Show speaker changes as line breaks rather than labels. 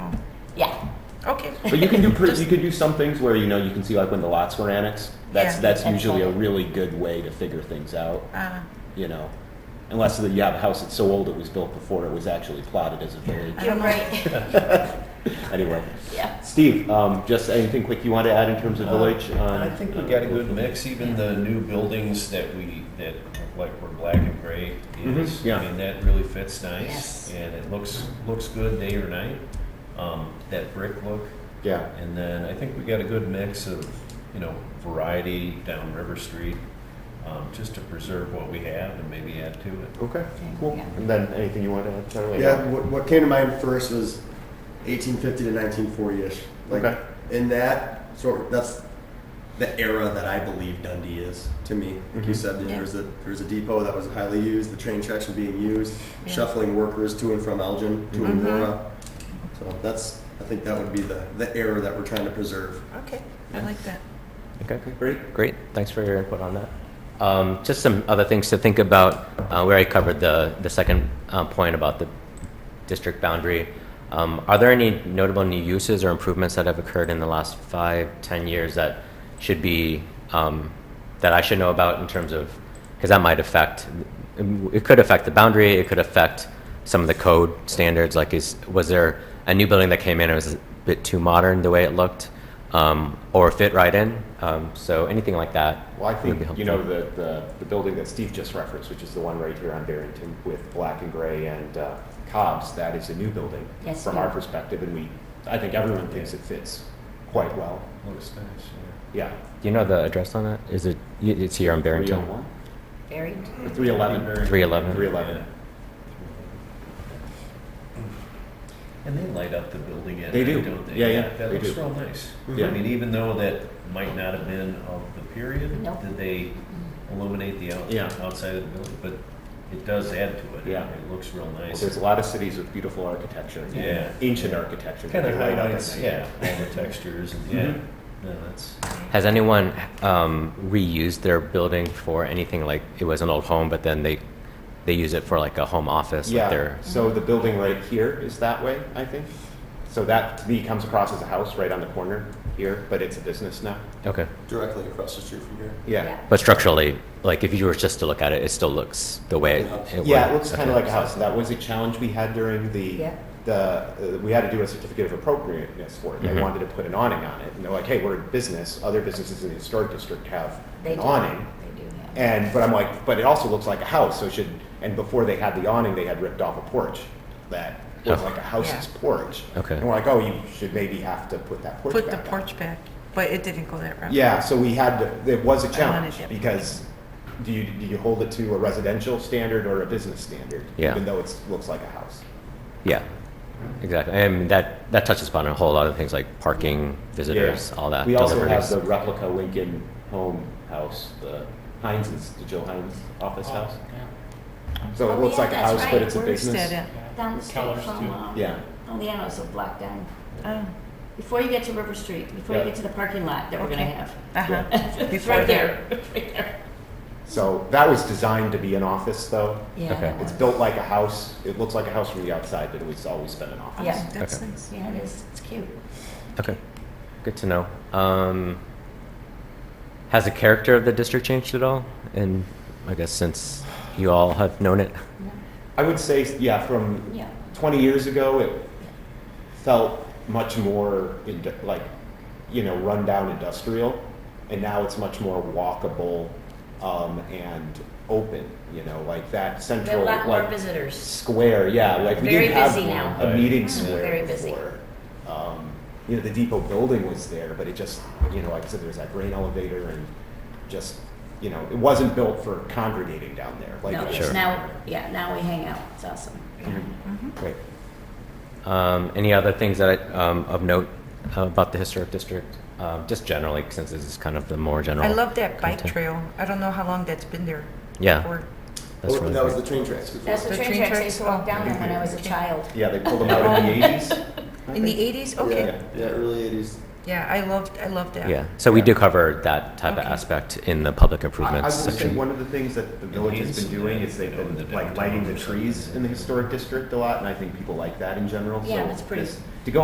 Okay.
But you can do pretty,
Just-
you could do some things where you know you can see like when the lots were annexed. That's
Yeah.
that's usually a really good way to figure things out.
Uh,
You know, unless the, you have a house that's so old it was built before it was actually plotted as a village.
don't
You're
know.
right.
Anyway,
Yeah.
Steve, um, just anything quick you want to add in terms of village?
Uh,
uh,
I
on-
think we got a good mix, even the new buildings that we, that like were black and gray is,
Mhm, yeah.
I mean, that really fits nice.
Yes.
And it looks, looks good day or night, um, that brick look.
Yeah,
And then I think we got a good mix of, you know, variety down River Street, um, just to preserve what we have and maybe add to it.
okay, cool.
Yeah.
And then anything you want to add, Charlie?
Yeah, what, what came to mind first was 1850 to 1940-ish. Like
Okay.
in that sort, that's the era that I believe Dundee is to me. Like
Mm-hmm.
you
Mhm.
said,
Yeah.
there was a there was a depot that was highly used, the train tracks were being used,
Yeah.
shuffling workers to and from Elgin, to
Mm-hmm.
Mhm.
Aurora. So that's I think that would be the the era that we're trying to preserve.
Okay, I like that.
Okay,
Great.
great. Thanks for your input on that. Um, just some other things to think about. Uh, we already covered the, the second uh, point about the district boundary. Um, are there any notable new uses or improvements that have occurred in the last five, ten years that should be um, that I should know about in terms of because that might affect it could affect the boundary. It could affect some of the code standards. Like, is was there a new building that came in? It was a bit too modern the way it looked, um, or fit right in. Um, so anything like that.
Well, I
would be
think, you know,
helpful.
the, the, the building that Steve just referenced, which is the one right here on Barrington with black and gray and uh, Cobb's, that is a new building
Yes,
from
yeah.
our perspective, and we, I think everyone thinks it fits quite well.
Looks nice, yeah.
Yeah.
Do you know the address on that? Is it? y- It's here on Barrington.
301?
Buried.
Or 311?
Three eleven.
311.
And they light up the building at
They do.
night, don't they?
Yeah, yeah,
That
they
looks
do. Mm-hmm.
real nice.
Yeah.
I mean, even though that might not have been of the period,
Nope.
did they illuminate the out-
Yeah.
outside of the building? But it does add to it.
Yeah.
It looks real
Well,
nice.
There's a lot of cities with beautiful architecture.
Yeah.
Ancient architecture. that
Kind of
they light up at
highlights,
night.
yeah, all the textures and, yeah.
Mhm.
No, that's,
Has anyone um, reused their building for anything like it was an old home, but then they they use it for like a home office? Like
Yeah,
their,
so the building right here is that way, I think. So that, to me, comes across as a house right on the corner here, but it's a business now.
okay.
Directly across the street from here.
Yeah.
But structurally, like if you were just to look at it, it still looks the way it, it
Yeah, it
would.
looks kind of
Okay.
like a house. That was a challenge we had during the,
Yeah.
the, uh, we had to do a certificate of appropriateness for it. They
Mhm.
wanted to put an awning on it. And they're like, hey, we're a business. Other businesses in the historic district have
They
an
do.
awning.
They do have.
And, but I'm like, but it also looks like a house, so it should, and before they had the awning, they had ripped off a porch that was
Oh.
like a house's
Yeah.
porch.
Okay.
And we're like, oh, you should maybe have to put that porch back
Put the
up."
porch back, but it didn't go that route.
Yeah, so we had, to- it was a
wanted
challenge,
it.
because do you, do you hold it to a residential standard or a business standard?
Yeah.
Even though it looks like a house.
Yeah, exactly. And that that touches upon a whole lot of things like parking, visitors,
Yeah.
all that.
We also have
deliveries.
the replica Lincoln Home House, the Heinz's, the Joe Heinz office house. So
Oh,
it looks
yeah,
like a
that's
house, but
right.
it's a
Where's that
business.
at?
Down the street
Keller's
from,
too.
um,
Yeah.
on the end, so block down.
Oh,
Before you get to River Street, before you
Yeah.
get to the parking lot that we're gonna
Okay.
have.
uh-huh.
It's
Before
right
that.
there, right there.
So that was designed to be an office, though.
Yeah.
Okay.
that
It's
one.
built like a house. It looks like a house from the outside, but it's always been an office.
Yeah.
That's
Okay.
nice.
Yeah, it is. It's cute.
Okay, good to know. Um, has the character of the district changed at all? And I guess since you all have known it,
No,
I would say, yeah, from
Yeah.
20 years ago, it felt much more in, like, you know, rundown industrial, and now it's much more walkable um, and open. You know, like that
We have
central
a lot more
like
visitors.
square. Yeah, like we
Very
didn't have
busy now.
a meeting
Mhm.
square
Very busy.
before. Um, you know, the depot building was there, but it just, you know, like I said, there was that grain elevator and just, you know, it wasn't built for congregating down there. Like
No,
it
it's
Sure.
now, yeah, now we hang out. It's awesome.
great. Um, any other things that I, um, of note about the historic district? Um, just generally, since this is kind of the more general.
I love that bike
content.
trail. I don't know how long that's been there.
Yeah.
for.
That's
Oh,
really
that was
great.
the train tracks. before.
That's the
The
train
train
tracks. I
tracks?
used to walk down there when I was a
Okay.
child.
Yeah, they pulled them out in the 80s. I
In the
think.
eighties? Okay.
Yeah, yeah, early 80s.
Yeah, I loved, I loved that.
Yeah, so we
Yeah.
do cover that type
Okay.
of aspect in the public
I I will
improvements
say,
section.
one of the things that the village has been doing is they've been like lighting the trees in the historic district a lot, and I think people like that in general.
Yeah,
so
that's pretty.
this-